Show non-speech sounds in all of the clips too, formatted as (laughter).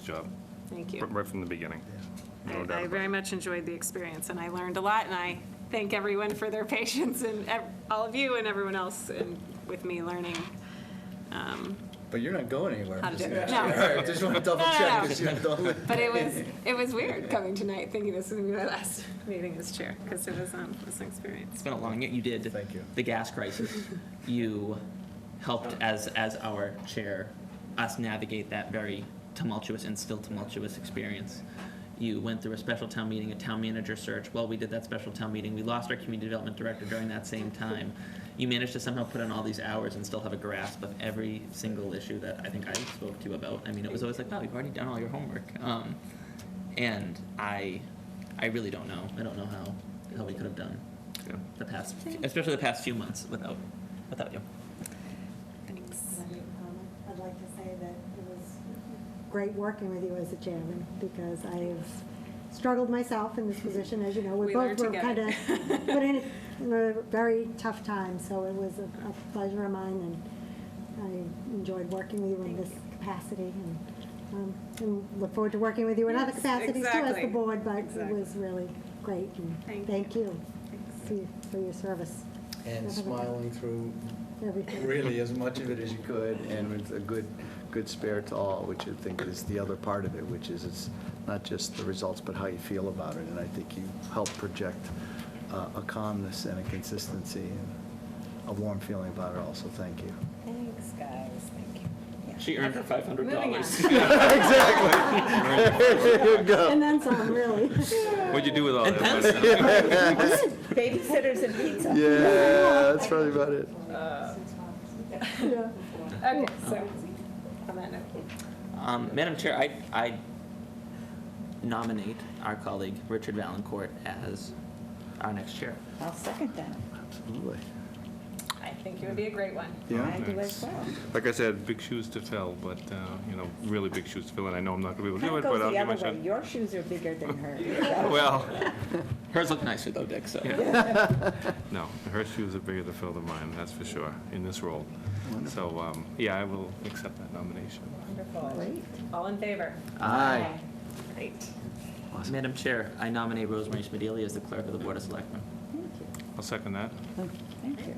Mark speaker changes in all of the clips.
Speaker 1: job,
Speaker 2: Thank you.
Speaker 1: r- right from the beginning.
Speaker 2: I-
Speaker 1: No doubt
Speaker 2: I
Speaker 1: about
Speaker 2: very
Speaker 1: it.
Speaker 2: much enjoyed the experience, and I learned a lot, and I thank everyone for their (laughs) patience, and ev- all of you and everyone else and with me learning.
Speaker 3: But you're not going anywhere.
Speaker 2: How to do it.
Speaker 3: Just-
Speaker 2: No.
Speaker 3: All right, just want to double
Speaker 2: No, no,
Speaker 3: check.
Speaker 2: no.
Speaker 3: 'cause you don't-
Speaker 2: But
Speaker 1: (laughs)
Speaker 2: it was, it was weird coming tonight, thinking this was going to be my last (laughs) meeting as chair, because it was, um, it was an experience.
Speaker 4: It's been a long, yet you did.
Speaker 3: Thank you.
Speaker 4: The gas crisis. You helped as, as our chair, us navigate that very tumultuous and still tumultuous experience. You went through a special town meeting, a town manager search. While we did that special town meeting, we lost our community development director during that same time. You managed to somehow put in all these hours and still have a grasp of every single issue that I think I spoke to you about. I mean, it was always like, wow, you've already done all your homework. Um, and I, I really don't know. I don't know how, how we could have done
Speaker 1: Yeah.
Speaker 4: the past, especially the past few months without, without you.
Speaker 2: Thanks.
Speaker 5: Can I make a comment? Um, I'd like to say that it was great working with you as a chairman, because I have struggled myself in
Speaker 2: (laughs)
Speaker 5: this position, as you know.
Speaker 2: We learn
Speaker 5: both were kind
Speaker 2: together. (laughs)
Speaker 5: of Put in a very tough time, so it was a a pleasure of mine, and I enjoyed working with you in
Speaker 2: Thank
Speaker 5: this
Speaker 2: you.
Speaker 5: capacity, and, um, and look forward to working with you in other
Speaker 2: Yes,
Speaker 5: capacities too as
Speaker 2: exactly.
Speaker 5: the board, but it
Speaker 2: Exactly.
Speaker 5: was really great,
Speaker 2: Thank
Speaker 5: and thank
Speaker 2: you.
Speaker 5: you for your- for your service,
Speaker 3: And smiling through
Speaker 5: everything.
Speaker 3: really as much of it as you could and with a good, good spare to all, which I think is the other part of it, which is it's not just the results, but how you feel about it. And I think you help project uh, a calmness and a consistency and a warm feeling about it also. Thank (laughs) you.
Speaker 6: Thanks, guys, thank you. Yeah.
Speaker 4: She earned her five hundred dollars.
Speaker 2: Moving on.
Speaker 3: There you go.
Speaker 5: And then some, (laughs) really.
Speaker 1: What'd (laughs) you do with all that? money? (laughs)
Speaker 5: (laughs)
Speaker 6: Babysitters and pizza.
Speaker 3: Yeah, that's probably about it.
Speaker 5: Yeah.
Speaker 2: Okay, so, Oh. on that note.
Speaker 4: (laughs) Um, Madam Chair, I, I nominate our colleague Richard Valencourt as our next chair.
Speaker 6: I'll second that.
Speaker 3: Absolutely.
Speaker 2: I think it would be a great one.
Speaker 3: Yeah.
Speaker 6: I do as well.
Speaker 1: Like I said, big shoes to fill, but, uh, you know, really big shoes to fill, and I know I'm not gonna be able to do
Speaker 6: That
Speaker 1: it, but I'll
Speaker 6: goes the
Speaker 1: give my
Speaker 6: other way,
Speaker 1: shot.
Speaker 6: your shoes are bigger than hers.
Speaker 1: (laughs)
Speaker 2: (laughs)
Speaker 1: Well,
Speaker 4: Hers look nicer though, Dick, so.
Speaker 1: no, her shoes are bigger to fill than mine, that's for sure, in this role. So, um, yeah, I will accept that nomination.
Speaker 2: Wonderful.
Speaker 6: Great.
Speaker 2: All in favor?
Speaker 3: Aye.
Speaker 2: Great.
Speaker 3: Awesome.
Speaker 4: Madam Chair, I nominate Rosemary Smedili as the clerk of the Board of Selectmen.
Speaker 6: Thank you,
Speaker 1: I'll second that.
Speaker 6: thank you.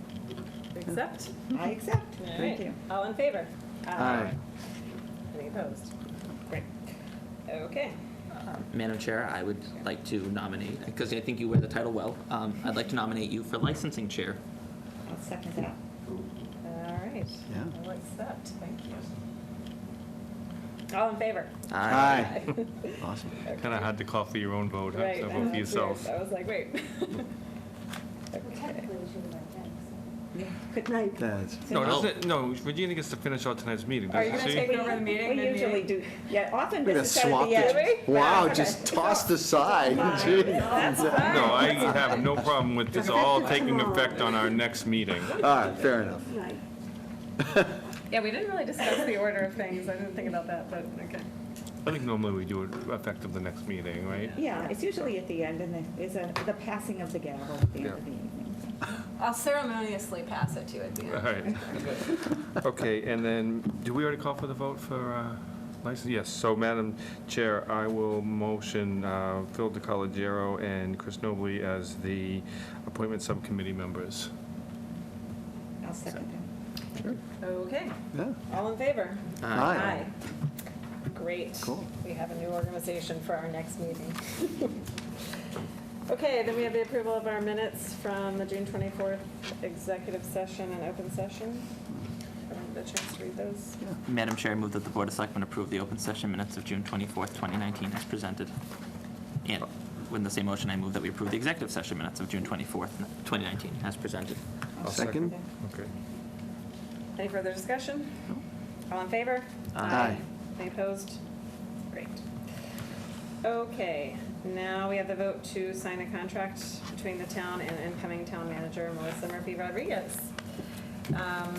Speaker 2: Accept?
Speaker 6: I accept,
Speaker 2: All
Speaker 6: thank
Speaker 2: right.
Speaker 6: you.
Speaker 2: All in favor?
Speaker 3: Aye.
Speaker 2: Any opposed? Great. Okay.
Speaker 4: Um, Madam Chair, I would like to nominate, because I think you wear the title well, um, I'd like to nominate you for licensing chair.
Speaker 6: I'll second that.
Speaker 2: All right.
Speaker 3: Yeah.
Speaker 2: I'll accept, thank you. All in favor?
Speaker 3: Aye. (laughs) Awesome.
Speaker 1: Kinda hard to call for your own vote, huh?
Speaker 2: Right.
Speaker 1: So
Speaker 2: I
Speaker 1: vote
Speaker 2: know,
Speaker 1: for
Speaker 2: (laughs) it's
Speaker 1: yourself.
Speaker 2: weird. I was like, wait. (laughs) Okay.
Speaker 5: Technically, we should have done that,
Speaker 6: Good
Speaker 5: so.
Speaker 6: night.
Speaker 5: Right.
Speaker 3: That's,
Speaker 1: No, doesn't, no, Virginia gets to finish out tonight's meeting,
Speaker 2: Are you
Speaker 1: doesn't she?
Speaker 2: gonna take
Speaker 6: We-
Speaker 2: over the meeting,
Speaker 6: We
Speaker 2: then
Speaker 6: usually
Speaker 2: you-
Speaker 6: do, yeah, often
Speaker 3: we're gonna
Speaker 6: this is at
Speaker 3: swap
Speaker 6: the end.
Speaker 3: the,
Speaker 2: Really?
Speaker 3: wow,
Speaker 2: Okay.
Speaker 3: just tossed aside. Gee.
Speaker 2: That's fine.
Speaker 1: No, I have no problem with this all taking effect on our next meeting.
Speaker 3: All right, fair enough.
Speaker 5: Right.
Speaker 2: Yeah, we didn't really discuss the order of things. I didn't think about that, but okay.
Speaker 1: I think normally we do it effective the next meeting, right?
Speaker 6: Yeah, it's usually at the end, and then there's a, the passing of the gavel at the end of the evening.
Speaker 2: I'll ceremoniously pass it to you at the
Speaker 1: All right. Okay, and then, do we already call for the vote for uh, license? Yes, so Madam Chair, I will motion uh, Phil DeColigiero and Chris Nobley as the appointment subcommittee members.
Speaker 6: I'll second that.
Speaker 2: Okay,
Speaker 3: Yeah,
Speaker 2: all in favor?
Speaker 3: Aye.
Speaker 2: Great.
Speaker 3: Cool.
Speaker 2: We have a new organization for our next meeting. Okay, then we have the approval of our minutes from the June 24th executive session and open session. Everyone had a chance to read those?
Speaker 4: Madam Chair, I move that the Board of Selectmen approve the open session minutes of June 24th, 2019 as presented. And in the same motion, I move that we approve the executive session minutes of June 24th, 2019 as presented.
Speaker 6: I'll
Speaker 3: second.
Speaker 6: that.
Speaker 1: Okay.
Speaker 2: Any further discussion? All in favor?
Speaker 3: Aye.
Speaker 2: Any opposed? Great. Okay, now we have the vote to sign a contract between the town and incoming town manager Melissa Murphy Rodriguez. Um,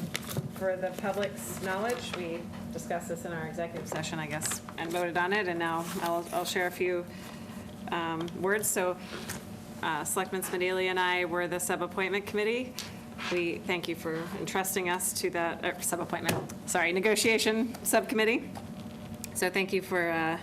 Speaker 2: For the public's knowledge, we discussed this in our executive session, I guess, and voted on it, and now I'll, I'll share a few um, words. So uh, Selectman Smedili and I were the sub-appointment committee. We thank you for entrusting us to er, that, uh, sub-appointment, sorry, negotiation subcommittee. So thank you for uh,